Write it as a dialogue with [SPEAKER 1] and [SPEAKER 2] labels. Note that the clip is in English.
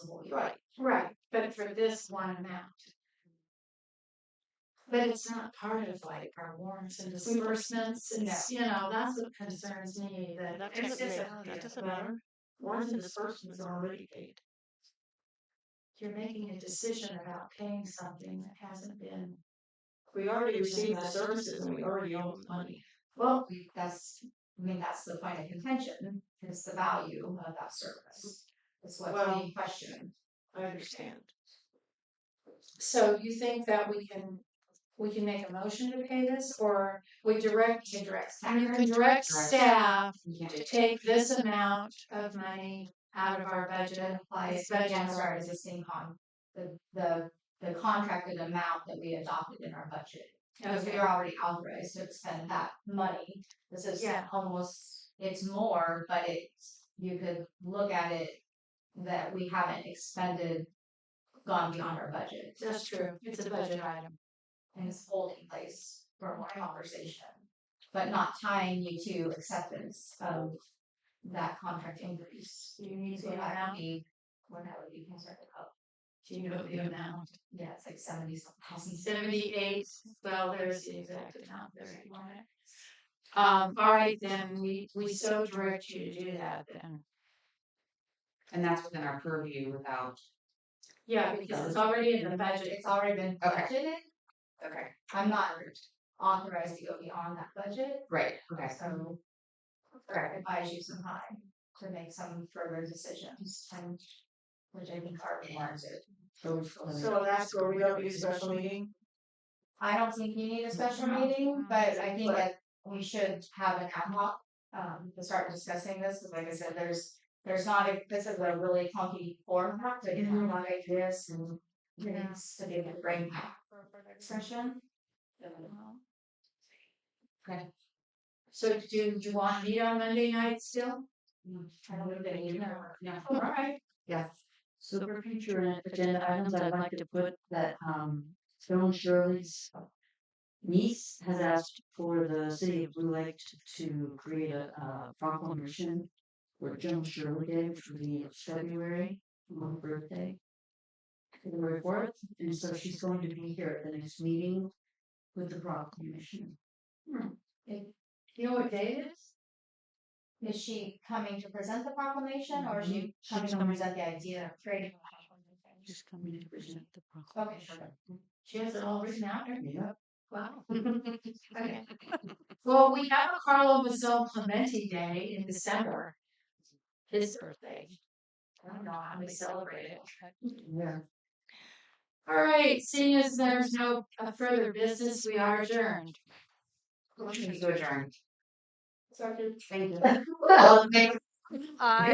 [SPEAKER 1] possible, you're
[SPEAKER 2] Right.
[SPEAKER 1] right, right, but for this one amount. But it's not part of like our warrants and disbursements, it's, you know, that's what concerns me, that.
[SPEAKER 2] That
[SPEAKER 1] it's
[SPEAKER 2] doesn't
[SPEAKER 1] just
[SPEAKER 2] matter,
[SPEAKER 1] a-
[SPEAKER 2] that doesn't
[SPEAKER 1] well,
[SPEAKER 2] matter. Warrants and disbursements are already paid.
[SPEAKER 1] You're making a decision about paying something that hasn't been,
[SPEAKER 2] We already received the services and we already owe them money.
[SPEAKER 3] Well, we, that's, I mean, that's the point of contention, is the value of that service. Is what's
[SPEAKER 2] Well-
[SPEAKER 3] being questioned.
[SPEAKER 2] I understand.
[SPEAKER 1] so you think that we can, we can make a motion to pay this, or we direct,
[SPEAKER 3] You can direct
[SPEAKER 1] you
[SPEAKER 3] staff.
[SPEAKER 1] can direct staff
[SPEAKER 3] Yeah.
[SPEAKER 1] to take this amount of money out of our
[SPEAKER 3] It
[SPEAKER 1] budget,
[SPEAKER 3] applies
[SPEAKER 1] Budget.
[SPEAKER 3] against our existing con, the, the, the contracted amount that we adopted in our budget. Because we
[SPEAKER 1] Okay.
[SPEAKER 3] are already authorized to expend that money. This is
[SPEAKER 1] Yeah.
[SPEAKER 3] almost, it's more, but it's, you could look at it that we haven't expended, gone beyond our budget.
[SPEAKER 1] That's true. It's a budget item.
[SPEAKER 3] and this holding place for more conversation, but not tying you to acceptance of that contract increase.
[SPEAKER 1] Do you need
[SPEAKER 3] So
[SPEAKER 1] the
[SPEAKER 3] that would
[SPEAKER 1] amount?
[SPEAKER 3] be, what that would be concerned about.
[SPEAKER 1] Do you know the amount?
[SPEAKER 3] Yeah, it's like seventy some thousand.
[SPEAKER 1] Seventy-eight, well, there's the exact amount there. if you want it. Um, all right, then, we, we so direct you to do that then.
[SPEAKER 4] And that's within our purview without.
[SPEAKER 1] Yeah, because it's already in the budget.
[SPEAKER 3] It's already been
[SPEAKER 4] Okay.
[SPEAKER 3] budgeted.
[SPEAKER 4] Okay.
[SPEAKER 3] I'm not authorized to go beyond that budget,
[SPEAKER 4] Right, okay.
[SPEAKER 3] so I advise you some time to make some further decisions and which I think are warranted.
[SPEAKER 2] So that's where we don't use special meeting?
[SPEAKER 3] I don't think you need a special
[SPEAKER 1] No.
[SPEAKER 3] meeting, but I think
[SPEAKER 2] But-
[SPEAKER 3] that we should have an ad hoc, um, to start discussing this, because like I said, there's. There's not, a this is a really funky format, but you have a lot of ideas and
[SPEAKER 1] Yeah.
[SPEAKER 3] things to do with brain power session. Okay.
[SPEAKER 1] So do you want me on Monday night still?
[SPEAKER 3] I don't know if you know.
[SPEAKER 4] Yeah.
[SPEAKER 1] All right.
[SPEAKER 4] Yes.
[SPEAKER 5] So for future agenda items, I'd like to put that um Joan Shirley's uh, niece has asked for the city of Blue Lake to- to create a uh proclamation for Joan Shirley Day, which will be in February, my birthday. February fourth, and so she's going to be here at the next meeting with the proclamation.
[SPEAKER 1] You know what day it is?
[SPEAKER 3] Is she coming to present the proclamation or is she
[SPEAKER 5] Mhm. She's
[SPEAKER 3] coming to
[SPEAKER 5] coming.
[SPEAKER 3] present the idea of creating? a proclamation?
[SPEAKER 5] Just coming to present the
[SPEAKER 3] Okay,
[SPEAKER 5] proclamation.
[SPEAKER 3] sure.
[SPEAKER 1] She has it all written out. there?
[SPEAKER 5] Yep.
[SPEAKER 1] Wow. Okay. Well, we have a Carlo Mazzone Clementi Day in December. His birthday. I don't know how we celebrate it.
[SPEAKER 5] Yeah.
[SPEAKER 1] All right, seeing as there's no uh, further business, we are adjourned.
[SPEAKER 4] Motion to adjourn.
[SPEAKER 3] Sorry.
[SPEAKER 4] Thank you.
[SPEAKER 3] Well, maybe
[SPEAKER 2] I